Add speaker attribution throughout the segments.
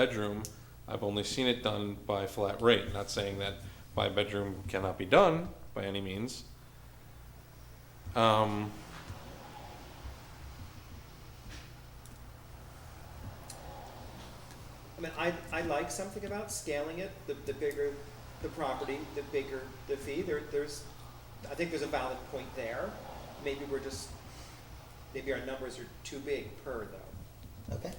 Speaker 1: bedroom, I've only seen it done by flat rate, not saying that my bedroom cannot be done by any means. Um,
Speaker 2: I mean, I, I like something about scaling it, the, the bigger the property, the bigger the fee, there, there's, I think there's a valid point there. Maybe we're just, maybe our numbers are too big per though.
Speaker 3: Okay.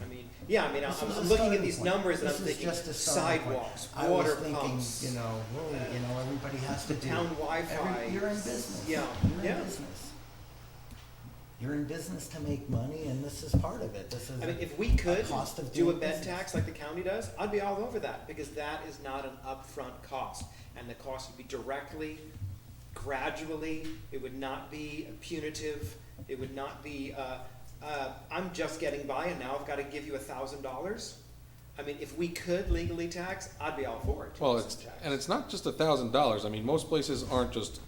Speaker 2: I mean, yeah, I mean, I'm,
Speaker 3: This is a
Speaker 2: I'm looking at
Speaker 3: starting
Speaker 2: these
Speaker 3: point.
Speaker 2: numbers and I'm
Speaker 3: This is
Speaker 2: thinking
Speaker 3: just a starting point.
Speaker 2: sidewalks, water
Speaker 3: I was
Speaker 2: pumps.
Speaker 3: thinking, you know, whoa, you know, everybody has to do.
Speaker 2: town Wi-Fi.
Speaker 3: Every- You're in business.
Speaker 2: Yeah,
Speaker 3: You're
Speaker 2: yeah.
Speaker 3: in business. You're in business to make money and this is part of it. This is.
Speaker 2: I mean, if we could
Speaker 3: cost of
Speaker 2: do a
Speaker 3: doing
Speaker 2: bed
Speaker 3: business.
Speaker 2: tax like the county does, I'd be all over that, because that is not an upfront cost. And the cost would be directly, gradually, it would not be punitive, it would not be, uh, uh, I'm just getting by and now I've gotta give you a thousand dollars. I mean, if we could legally tax, I'd be all for it.
Speaker 1: well, it's,
Speaker 2: Tax.
Speaker 1: and it's not just a thousand dollars, I mean, most places aren't just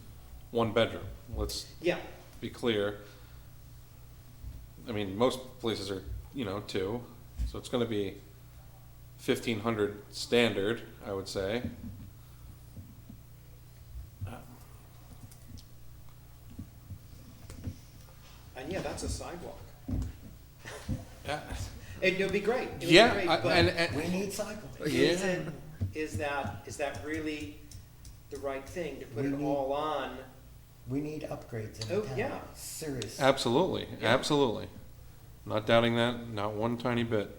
Speaker 1: one bedroom, let's
Speaker 2: Yeah,
Speaker 1: be clear. I mean, most places are, you know, two, so it's gonna be fifteen hundred standard, I would say.
Speaker 2: and yeah, that's a sidewalk.
Speaker 1: Yeah,
Speaker 2: It would be great, it would be
Speaker 1: yeah,
Speaker 2: great,
Speaker 1: I-
Speaker 2: but-
Speaker 1: and, and, Oh,
Speaker 3: We need sidewalks.
Speaker 2: Is
Speaker 1: Yeah.
Speaker 2: it, is that, is that really the right thing to put
Speaker 3: We
Speaker 2: it
Speaker 3: need-
Speaker 2: all on?
Speaker 3: We need upgrades in the
Speaker 2: Oh,
Speaker 3: town.
Speaker 2: yeah.
Speaker 3: Seriously.
Speaker 1: Absolutely,
Speaker 2: Yeah.
Speaker 1: absolutely. Not doubting that, not one tiny bit.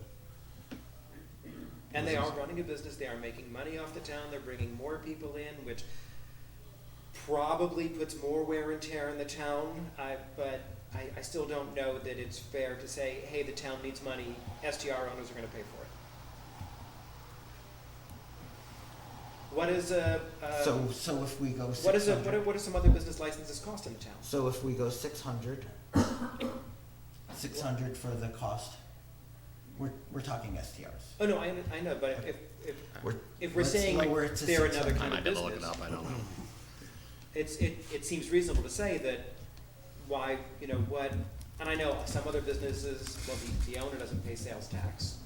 Speaker 2: And they
Speaker 3: Mm-hmm.
Speaker 2: are running a business, they are making money off the town, they're bringing more people in, which probably puts more wear and tear in the town, I, but I, I still don't know that it's fair to say, hey, the town needs money, STR owners are gonna pay for it. What is a, uh,
Speaker 3: So, so if we go
Speaker 2: what
Speaker 3: six
Speaker 2: is a, what are,
Speaker 3: hundred,
Speaker 2: what are some other business licenses cost in the town?
Speaker 3: so if we go six hundred, six hundred for the cost, we're, we're talking STRs.
Speaker 2: Oh, no, I, I know, but if, if,
Speaker 3: We're-
Speaker 2: if we're
Speaker 3: let's
Speaker 2: saying
Speaker 3: lower it to
Speaker 2: they're another
Speaker 3: 600.
Speaker 2: kind
Speaker 4: I
Speaker 2: of
Speaker 4: might be able to look it
Speaker 2: business,
Speaker 4: up, I don't know.
Speaker 2: it's, it, it seems reasonable to say that why, you know, what, and I know some other businesses, well, the, the owner doesn't pay sales tax.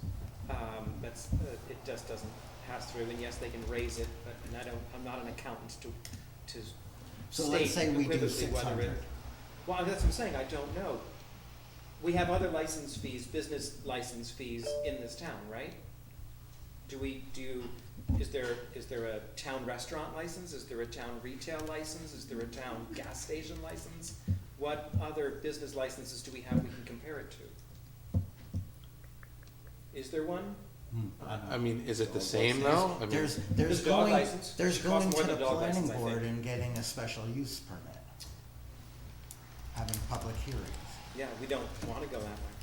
Speaker 2: Um, that's, uh, it just doesn't pass through, and yes, they can raise it, but, and I don't, I'm not an accountant to, to
Speaker 3: So let's
Speaker 2: state
Speaker 3: say we do
Speaker 2: unequivocally
Speaker 3: six
Speaker 2: whether it-
Speaker 3: hundred.
Speaker 2: Well, that's what I'm saying, I don't know. We have other license fees, business license fees in this town, right? Do we, do, you- is there, is there a town restaurant license, is there a town retail license, is there a town gas station license? What other business licenses do we have we can compare it to? Is there one?
Speaker 1: I mean, is it the
Speaker 3: Hmm. Well,
Speaker 1: same
Speaker 3: there's-
Speaker 1: though? I mean-
Speaker 3: There's, there's
Speaker 2: Does dog
Speaker 3: going,
Speaker 2: license
Speaker 3: there's
Speaker 2: cost
Speaker 3: going
Speaker 2: more
Speaker 3: to
Speaker 2: than
Speaker 3: the
Speaker 2: dog
Speaker 3: planning
Speaker 2: license, I
Speaker 3: board
Speaker 2: think?
Speaker 3: and getting a special use permit. Having public hearings.
Speaker 2: Yeah, we don't wanna go that way.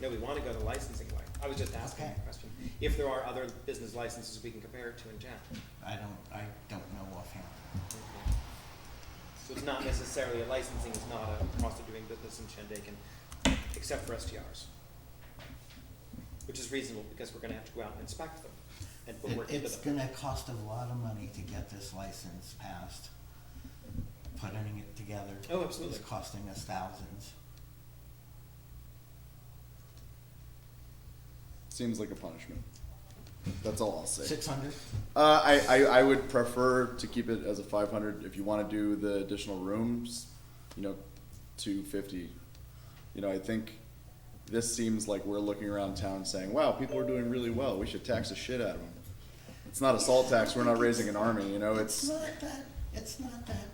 Speaker 2: No, we wanna go the licensing way. I was just asking
Speaker 3: Okay.
Speaker 2: a question, if there are other business licenses we can compare it to in town.
Speaker 3: I don't, I don't know offhand.
Speaker 2: Okay. So it's not necessarily, a licensing is not a cost of doing business in Shandaken, except for STRs. Which is reasonable, because we're gonna have to go out and inspect them and put work
Speaker 3: It,
Speaker 2: into
Speaker 3: it's
Speaker 2: them.
Speaker 3: gonna cost a lot of money to get this license passed. Putting it together.
Speaker 2: Oh, absolutely.
Speaker 3: Is costing us thousands.
Speaker 5: Seems like a punishment. That's all I'll say.
Speaker 3: Six hundred?
Speaker 5: Uh, I, I, I would prefer to keep it as a 500 if you want to do the additional rooms, you know, 250. You know, I think this seems like we're looking around town saying, wow, people are doing really well. We should tax the shit out of them. It's not a salt tax. We're not raising an army. You know,
Speaker 3: It's
Speaker 5: it's,
Speaker 3: not that, it's not that,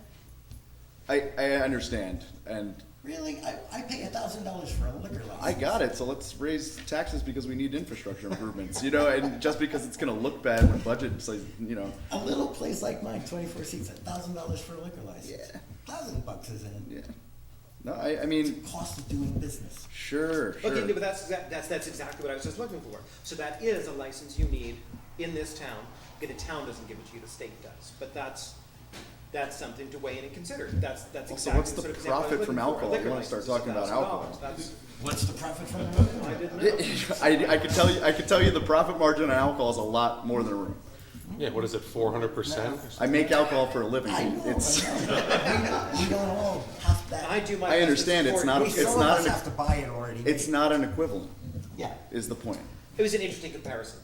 Speaker 5: I, I understand. And
Speaker 3: really, I, I pay a thousand dollars for a liquor license.
Speaker 5: I got it. So let's raise taxes because we need infrastructure improvements, you know, and just because it's going to look bad when budget says, you know,
Speaker 3: A little place like mine, twenty-four seats, a thousand dollars for a liquor license.
Speaker 5: Yeah.
Speaker 3: Thousand bucks is in.
Speaker 5: yeah. No, I, I mean,
Speaker 3: cost of doing business.
Speaker 5: Sure, sure.
Speaker 2: Okay, but that's exact, that's, that's exactly what I was just looking for. So that is a license you need in this town, Okay, the town doesn't give it to you, the state does, but that's, that's something to weigh in and consider, that's, that's
Speaker 5: Also,
Speaker 2: exactly
Speaker 5: what's
Speaker 2: the sort
Speaker 5: the
Speaker 2: of example I was
Speaker 5: profit from
Speaker 2: looking for. A
Speaker 5: alcohol?
Speaker 2: liquor
Speaker 5: You wanna
Speaker 2: license
Speaker 5: start
Speaker 2: is
Speaker 5: talking about
Speaker 2: $1,000.
Speaker 5: alcohol.
Speaker 2: That's,
Speaker 3: What's the profit from it?
Speaker 2: I didn't know.
Speaker 5: I, I could tell you, I could tell you the profit margin on alcohol is a lot more than a room.
Speaker 1: Yeah, what is it, four hundred percent?
Speaker 5: I make alcohol for a living.
Speaker 3: I know, I know.
Speaker 5: It's,
Speaker 3: We don't- We don't all have that.
Speaker 2: I do my.
Speaker 5: I understand
Speaker 2: business
Speaker 5: it's
Speaker 2: for-
Speaker 5: not a-
Speaker 3: We, some
Speaker 5: it's
Speaker 3: of
Speaker 5: not
Speaker 3: us
Speaker 5: an-
Speaker 3: have to buy it already.
Speaker 5: it's not an equivalent,
Speaker 3: Yeah,
Speaker 5: is the point.
Speaker 2: It was an interesting comparison.